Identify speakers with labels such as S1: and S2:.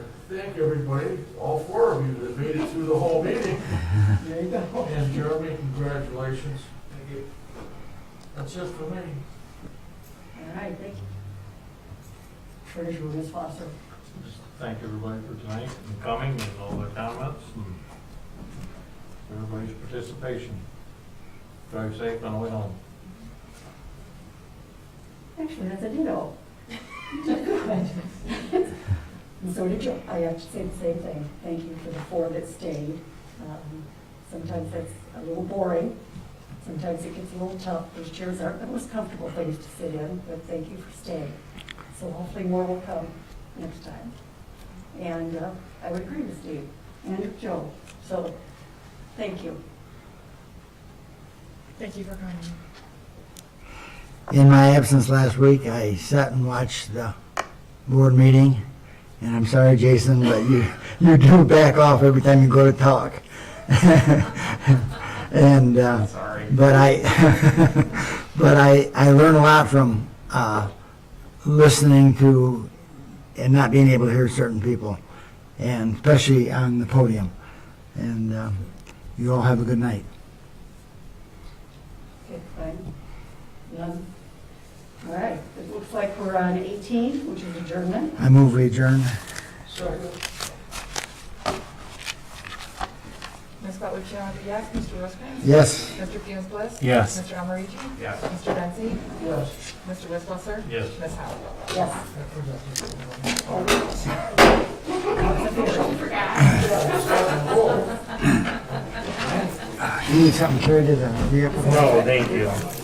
S1: thank everybody, all four of you that made it through the whole meeting.
S2: There you go.
S1: And Jeremy, congratulations.
S2: Thank you.
S1: That's it for me.
S2: All right, thank you. Treasurer, Ms. Foster.
S3: Just Thank everybody for tonight and coming and all their comments and everybody's participation. Drive safe on the way home.
S2: Actually, that's a ditto. And so did you, I have to say the same thing. Thank you for the four that stayed. Um, Sometimes that's a little boring. Sometimes it gets a little tough. Those chairs aren't the most comfortable things to sit in, but thank you for staying. So hopefully more will come next time. And uh, I would agree with Steve and Joe. So, thank you.
S4: Thank you for coming.
S5: In my absence last week, I sat and watched the board meeting, and I'm sorry, Jason, but you, you do back off every time you go to talk. And, uh,
S6: Sorry.
S5: but I, but I, I learn a lot from, uh, listening to and not being able to hear certain people, and especially on the podium. And, um, you all have a good night.
S2: Okay, fine. None? All right, it looks like we're on 18, which is adjournment.
S5: I move we adjourn.
S1: Second.
S4: Ms. Butler Chiarelli, yes. Mr. Rosecrans?
S5: Yes?
S4: Mr. Fields Bliss?
S3: Yes.
S4: Mr. Almarigi?
S6: Yes.
S4: Mr. Bensy?
S1: Yes.
S4: Mr. Wisswasser?
S3: Yes.
S4: Ms. Howard?
S2: Yes.
S5: You need something carried to the vehicle?
S3: No, thank you.